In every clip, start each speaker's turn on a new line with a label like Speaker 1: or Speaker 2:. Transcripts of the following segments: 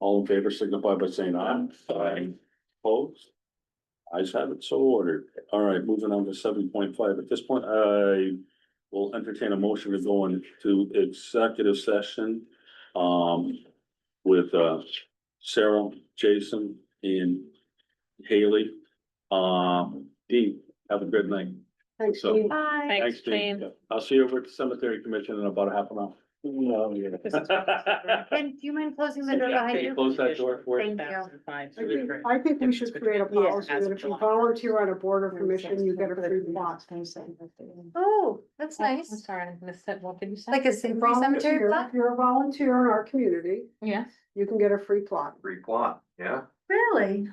Speaker 1: All in favor signify by saying aye.
Speaker 2: Aye.
Speaker 1: Opposed? Ayes have it, so ordered. All right, moving on to seven point five. At this point, I will entertain a motion to go into executive session. Um, with uh Sarah, Jason and Haley. Um, Dean, have a good night.
Speaker 3: Thanks,
Speaker 1: So-
Speaker 3: Dean.
Speaker 4: Bye.
Speaker 2: Thanks,
Speaker 1: Dean.
Speaker 2: Dean.
Speaker 1: I'll see you over at the cemetery commission in about a half an hour.
Speaker 2: No, you're.
Speaker 4: And do you mind closing the door
Speaker 2: Yeah,
Speaker 4: behind you?
Speaker 1: Close that door for us.
Speaker 4: Thank you.
Speaker 3: I think, I think we should create a policy that if you volunteer on a board or commission, you get a free plot.
Speaker 4: Oh, that's
Speaker 5: I'm
Speaker 4: nice.
Speaker 5: sorry, I missed that. What did you say?
Speaker 4: Like a
Speaker 3: If
Speaker 4: symphony cemetery
Speaker 3: you're-
Speaker 4: plot?
Speaker 3: If you're a volunteer in our community,
Speaker 5: Yes.
Speaker 3: you can get a free plot.
Speaker 6: Free plot, yeah.
Speaker 4: Really?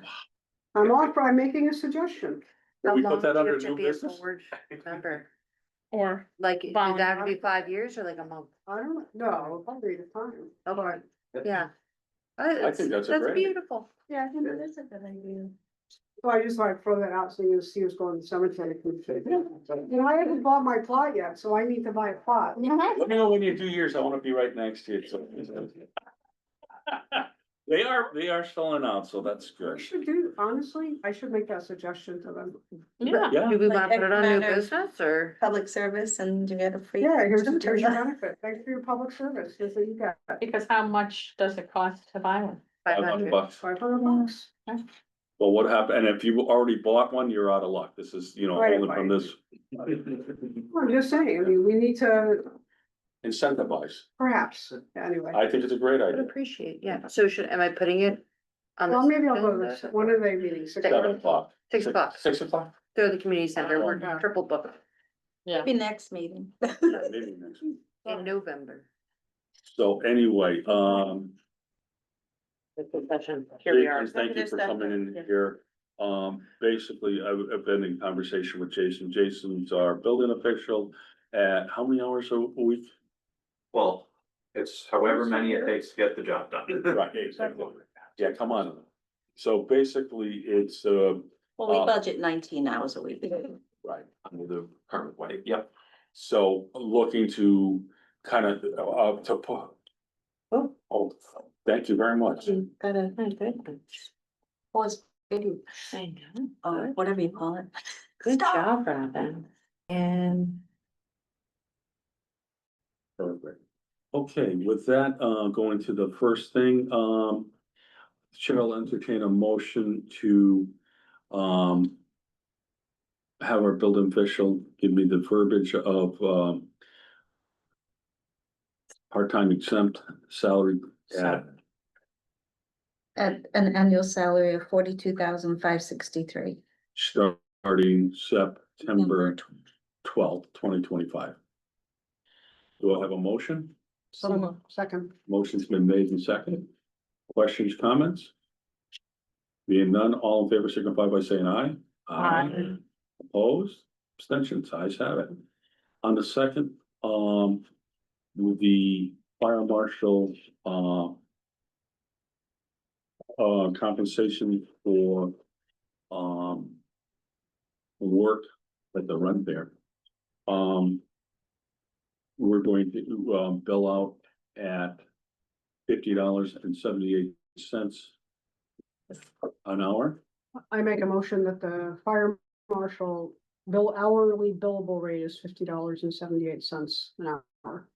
Speaker 3: I'm off by making a suggestion.
Speaker 1: Can
Speaker 4: How
Speaker 1: we put
Speaker 4: long
Speaker 1: that
Speaker 4: do you
Speaker 1: under
Speaker 4: have to
Speaker 1: new
Speaker 4: be a
Speaker 1: business?
Speaker 4: forward Member,
Speaker 5: Or
Speaker 4: like, did that have to be five years or like a month?
Speaker 3: I don't know, probably the time.
Speaker 4: Oh, Lord. yeah. Uh, it's-
Speaker 1: think that's a great idea.
Speaker 4: Beautiful.
Speaker 5: yeah, I think
Speaker 3: that
Speaker 5: is a good idea.
Speaker 3: So I just like throw that out so you see who's going to the cemetery. And I haven't bought my plot yet, so I need to buy a plot.
Speaker 2: Mm-hmm.
Speaker 1: Let me know when you do yours. I wanna be right next to you. so- They are, they are selling out, so that's
Speaker 3: I
Speaker 1: good.
Speaker 3: should do, honestly, I should make that suggestion to them.
Speaker 5: Yeah.
Speaker 1: Yeah,
Speaker 4: Do we want to
Speaker 5: Like,
Speaker 4: put it on new
Speaker 5: matter-
Speaker 4: business or?
Speaker 5: Public service and you get a free.
Speaker 3: Yeah, here's, here's your
Speaker 5: cemetery.
Speaker 3: benefit. Thanks for your public service. Here's what you got.
Speaker 5: Because how much does it cost to buy one?
Speaker 1: five hundred bucks.
Speaker 3: Five hundred bucks.
Speaker 1: Well, what happened, and if you already bought one, you're out of luck. This is, you know,
Speaker 3: Right,
Speaker 1: only from this
Speaker 3: I'm just saying, I mean, we need to
Speaker 1: incentivize.
Speaker 3: perhaps, anyway.
Speaker 1: I think it's a great
Speaker 4: I would
Speaker 1: idea.
Speaker 4: appreciate, yeah. So should, am I putting it? on the
Speaker 3: Well, maybe I'll go to
Speaker 4: agenda?
Speaker 3: one of their meetings. six
Speaker 1: Seven
Speaker 3: o'clock.
Speaker 1: o'clock.
Speaker 4: Six bucks,
Speaker 1: Six o'clock?
Speaker 4: throw the community center, we're
Speaker 3: Yeah.
Speaker 4: triple booked
Speaker 2: Yeah.
Speaker 5: Be next meeting.
Speaker 1: Maybe next.
Speaker 4: in November.
Speaker 1: So anyway, um,
Speaker 4: Session.
Speaker 2: Here we are.
Speaker 1: Jason, Thank you for coming in here. Um, basically, I've, I've been in conversation with Jason. Jason's our building official at how many hours a a week?
Speaker 6: Well, it's however many it takes to get the job done.
Speaker 1: Right, exactly. Yeah, come on. So basically, it's, uh,
Speaker 5: Well,
Speaker 1: Uh,
Speaker 5: we budget nineteen hours a week. Uh,
Speaker 1: right,
Speaker 6: Under the current way, yep.
Speaker 1: so looking to kind of, uh, to put.
Speaker 5: Oh.
Speaker 1: Oh, thank you very much.
Speaker 2: Mm-hmm.
Speaker 5: Gotta,
Speaker 4: Oh,
Speaker 5: Pause, video. Or whatever you call it. Good job, Robin. And.
Speaker 1: Perfect. Okay, with that, uh, going to the first thing, um, Chair will entertain a motion to, um, have our building official give me the verbiage of, um, part-time exempt salary at
Speaker 7: At an annual salary of forty-two thousand five sixty-three.
Speaker 1: starting September twelfth, twenty twenty-five. Do I have a motion?
Speaker 3: Some- Second.
Speaker 1: Motion's been made and seconded. Questions, comments? Being none, all in favor signify by saying aye.
Speaker 2: Aye.
Speaker 1: Opposed, abstentions, ayes have it. On the second, um, with the fire marshal, uh. Uh, compensation for, um. Work at the run there. Um. We're going to, um, bill out at fifty dollars and seventy-eight cents an hour.
Speaker 3: I make a motion that the fire marshal bill hourly billable rate is fifty dollars and seventy-eight cents an hour.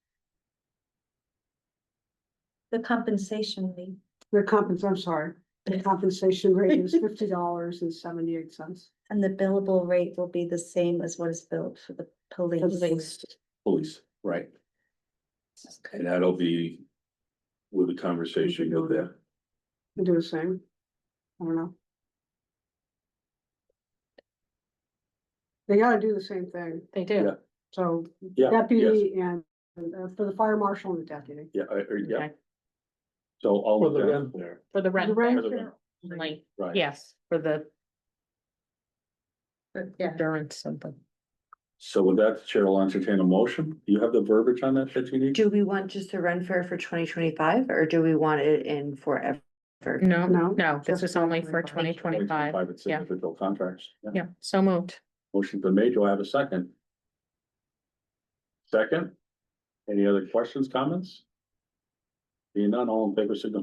Speaker 7: The compensation leave.
Speaker 3: The compens, I'm sorry, the compensation rate is fifty dollars and seventy-eight cents.
Speaker 7: And the billable rate will be the same as what is billed for the police.
Speaker 1: Police, right. And that'll be with the conversation of that.
Speaker 3: Do the same. I don't know. They gotta do the same thing,
Speaker 5: They
Speaker 1: Yeah.
Speaker 5: do.
Speaker 3: so
Speaker 1: Yeah, yes,
Speaker 3: deputy and, uh, for the fire marshal and the deputy.
Speaker 1: yeah, I- I- yeah,
Speaker 2: Okay.
Speaker 1: so all
Speaker 2: For
Speaker 1: of
Speaker 2: the
Speaker 1: that.
Speaker 2: rent For the rent.
Speaker 3: Rent.
Speaker 1: For the rent,
Speaker 2: Like,
Speaker 1: Right.
Speaker 2: yes, for the
Speaker 7: Yeah,
Speaker 2: endurance something.
Speaker 1: So with that, the Chair will entertain a motion. Do you have the verbiage on that that you need?
Speaker 4: Do we want just the run fair for twenty twenty-five or do we want it in forever?
Speaker 2: No,
Speaker 3: No,
Speaker 2: no, this
Speaker 3: just
Speaker 2: is only for
Speaker 3: 2025.
Speaker 2: twenty twenty-five.
Speaker 1: It's
Speaker 2: yeah.
Speaker 1: individual contracts.
Speaker 2: Yeah, so moved.
Speaker 1: Motion's been made. Do I have a second? Second? Any other questions, comments? Being none, all in favor signify